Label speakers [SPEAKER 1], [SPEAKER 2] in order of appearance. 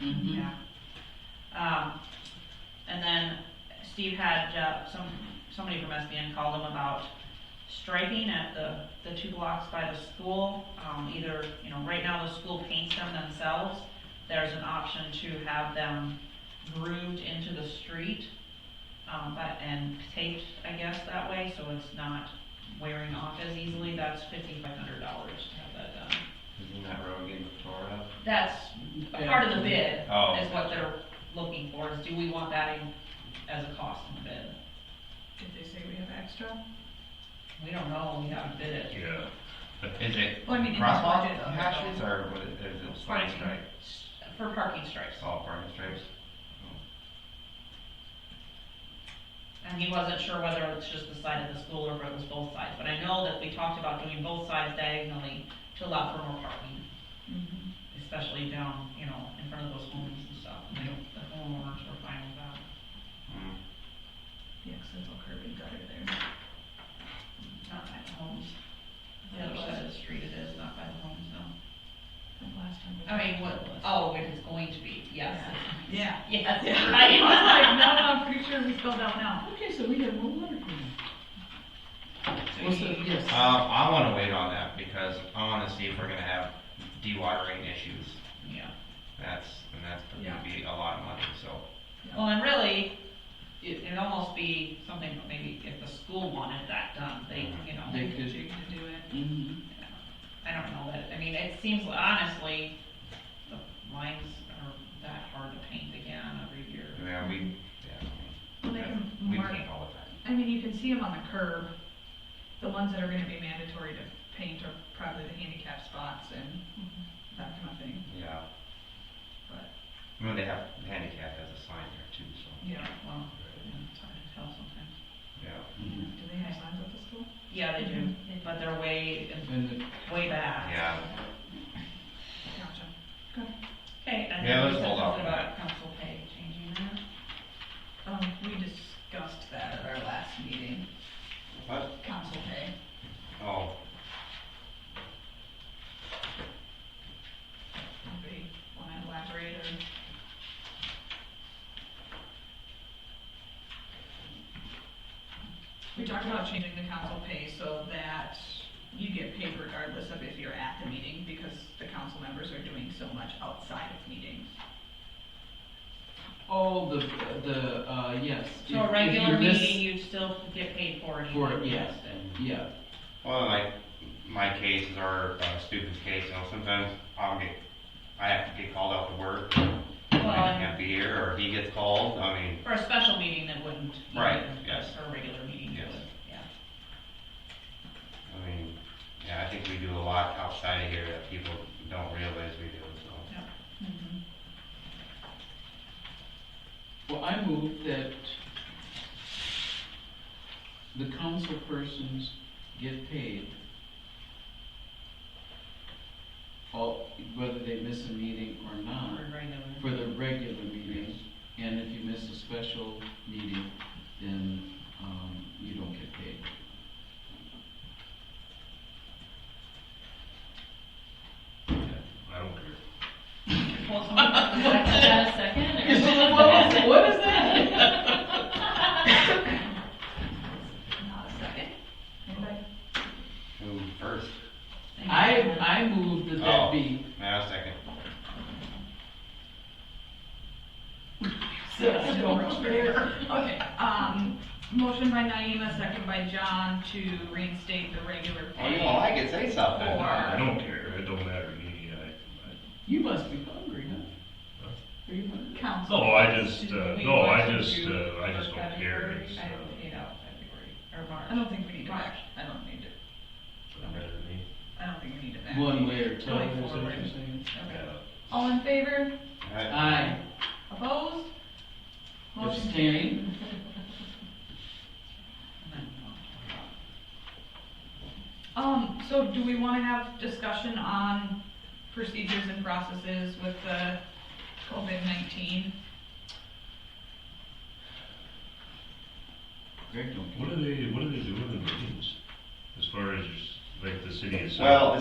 [SPEAKER 1] Mm-hmm.
[SPEAKER 2] Mm-hmm.
[SPEAKER 1] Um, Steve had, uh, some, somebody from SBN called him about striping at the, the two blocks by the school. Um, either, you know, right now the school paints them themselves. There's an option to have them grooved into the street, um, but, and taped, I guess, that way, so it's not wearing off as easily. That's fifty-five hundred dollars to have that done.
[SPEAKER 2] Isn't that road getting tore up?
[SPEAKER 1] That's a part of the bid,
[SPEAKER 2] Oh.
[SPEAKER 1] is what they're looking for, is do we want that in as a cost in the bid?
[SPEAKER 3] Did they say we have extra?
[SPEAKER 1] We don't know, we haven't bid it.
[SPEAKER 4] Yeah.
[SPEAKER 2] Is it
[SPEAKER 3] Well, I mean, in the
[SPEAKER 2] crosswalk
[SPEAKER 3] budget, uh,
[SPEAKER 2] hashes or what is, is it line
[SPEAKER 3] Parking.
[SPEAKER 2] stripe,
[SPEAKER 1] S- For parking stripes,
[SPEAKER 2] all parking stripes?
[SPEAKER 1] and he wasn't sure whether it's just the side of the school or if it was both sides, but I know that we talked about doing both sides diagonally to allow for more parking,
[SPEAKER 3] Mm-hmm.
[SPEAKER 1] especially down, you know, in front of those homes and stuff, and the homeowners were fine with that.
[SPEAKER 2] Hmm.
[SPEAKER 3] The accidental curb and gutter there.
[SPEAKER 1] Not by the homes, the other side of the street it is, not by the homes, no.
[SPEAKER 3] From last time. we
[SPEAKER 1] I mean, what,
[SPEAKER 3] talked about
[SPEAKER 1] oh, it is going to be, yes.
[SPEAKER 3] this. Yeah.
[SPEAKER 1] Yes,
[SPEAKER 3] Yeah.
[SPEAKER 1] right.
[SPEAKER 3] I was like, no, no, I'm pretty sure we spelled out now.
[SPEAKER 5] Okay, so we have one letter from them.
[SPEAKER 1] So
[SPEAKER 5] What's
[SPEAKER 1] you-
[SPEAKER 5] the, yes.
[SPEAKER 2] Uh, I wanna wait on that because I wanna see if we're gonna have dewatering issues.
[SPEAKER 1] Yeah.
[SPEAKER 2] That's, and that's
[SPEAKER 3] Yeah.
[SPEAKER 2] gonna be a lot of money, so.
[SPEAKER 1] Well, and really, it, it'd almost be something, that maybe if the school wanted that done, they, you know,
[SPEAKER 5] They
[SPEAKER 3] Did
[SPEAKER 5] could,
[SPEAKER 3] you get to do it?
[SPEAKER 5] mhm.
[SPEAKER 1] I don't know that, I mean, it seems honestly, the lines are that hard to paint again every year.
[SPEAKER 2] Yeah, we, yeah,
[SPEAKER 3] Well, they can
[SPEAKER 2] we
[SPEAKER 3] Mm-hmm. mark,
[SPEAKER 2] paint all the time.
[SPEAKER 3] I mean, you can see them on the curb. The ones that are gonna be mandatory to paint are probably the handicap spots and
[SPEAKER 1] Mm-hmm.
[SPEAKER 3] that kind of thing,
[SPEAKER 2] Yeah,
[SPEAKER 3] but,
[SPEAKER 2] I mean, they have handicap as a sign there too, so,
[SPEAKER 3] yeah.
[SPEAKER 1] Well, yeah, it's hard to tell sometimes.
[SPEAKER 2] yeah,
[SPEAKER 3] Do they have signs at the school?
[SPEAKER 1] Yeah, they
[SPEAKER 5] Mm-hmm.
[SPEAKER 1] do, but they're way,
[SPEAKER 5] And the-
[SPEAKER 1] way back.
[SPEAKER 2] yeah.
[SPEAKER 3] Gotcha.
[SPEAKER 1] Okay, and
[SPEAKER 2] Yeah,
[SPEAKER 1] then
[SPEAKER 2] let's
[SPEAKER 1] we said
[SPEAKER 2] hold off
[SPEAKER 1] something
[SPEAKER 2] on
[SPEAKER 1] about council pay changing that.
[SPEAKER 3] Um, we discussed that at our last meeting,
[SPEAKER 2] What?
[SPEAKER 3] council pay.
[SPEAKER 2] Oh,
[SPEAKER 3] Anybody wanna elaborate or? We talked about changing the council pay so that you get paid regardless of if you're at the meeting, because the council members are doing so much outside of meetings.
[SPEAKER 5] Oh, the, the, uh, yes.
[SPEAKER 1] So
[SPEAKER 5] If-
[SPEAKER 1] a
[SPEAKER 5] if
[SPEAKER 1] regular
[SPEAKER 5] you miss-
[SPEAKER 1] meeting, you'd still get paid for it. even
[SPEAKER 5] For,
[SPEAKER 1] if
[SPEAKER 5] it,
[SPEAKER 1] you
[SPEAKER 5] yes,
[SPEAKER 1] missed it.
[SPEAKER 5] yeah.
[SPEAKER 2] Well, like my case is our uh, student's case, you know, sometimes I'll get, I have to get called out to work. I
[SPEAKER 1] Well,
[SPEAKER 2] can't be here, or he gets called, I mean,
[SPEAKER 1] For a special meeting that wouldn't. you
[SPEAKER 2] Right,
[SPEAKER 1] know,
[SPEAKER 2] yes.
[SPEAKER 1] For a regular meeting, it
[SPEAKER 2] Yes.
[SPEAKER 1] would, yeah.
[SPEAKER 2] I mean, yeah, I think we do a lot outside of here that people don't realize we do, so.
[SPEAKER 5] Well, I move that the council persons get paid all, whether they miss a meeting or
[SPEAKER 1] For
[SPEAKER 5] not,
[SPEAKER 1] a regular.
[SPEAKER 5] for the regular meeting, and if you miss a special meeting, then, um, you don't get paid.
[SPEAKER 4] I don't care.
[SPEAKER 1] Well, someone else is like, "Is that a second, or-"
[SPEAKER 5] What is that?
[SPEAKER 3] Not a second. Anybody?
[SPEAKER 2] Who first?
[SPEAKER 5] I, I move that that
[SPEAKER 2] Oh.
[SPEAKER 5] be.
[SPEAKER 2] Now, second.
[SPEAKER 3] Okay, um, motion by Naima, second by John to reinstate the regular
[SPEAKER 2] Oh,
[SPEAKER 3] pay.
[SPEAKER 2] you all like it, say something.
[SPEAKER 3] Four.
[SPEAKER 4] Oh, I don't care, it don't matter to me, I,
[SPEAKER 5] You must be hungry, huh? Are you hungry?
[SPEAKER 4] I,
[SPEAKER 3] Council.
[SPEAKER 2] Oh,
[SPEAKER 4] no, I just, uh,
[SPEAKER 1] We
[SPEAKER 4] no, I
[SPEAKER 1] want to
[SPEAKER 4] just,
[SPEAKER 1] do
[SPEAKER 4] uh, I just
[SPEAKER 1] for
[SPEAKER 4] don't care,
[SPEAKER 1] February.
[SPEAKER 4] it's,
[SPEAKER 1] I haven't
[SPEAKER 4] uh,
[SPEAKER 1] paid out February, or
[SPEAKER 3] I
[SPEAKER 1] March.
[SPEAKER 3] don't think we need to back, I don't need to,
[SPEAKER 4] doesn't matter to me.
[SPEAKER 3] I don't think we need to back.
[SPEAKER 5] One way or two, is that
[SPEAKER 3] Going
[SPEAKER 5] what
[SPEAKER 3] forward.
[SPEAKER 5] you're saying?
[SPEAKER 3] Okay.
[SPEAKER 4] Yeah.
[SPEAKER 3] All in favor?
[SPEAKER 5] Aye.
[SPEAKER 3] Opposed? Motion carried.
[SPEAKER 5] Abstain.
[SPEAKER 3] Um, so do we wanna have discussion on procedures and processes with the COVID nineteen?
[SPEAKER 5] Greg don't care.
[SPEAKER 4] What are they, what are they doing in meetings, as far as, like, the city itself?
[SPEAKER 2] Well,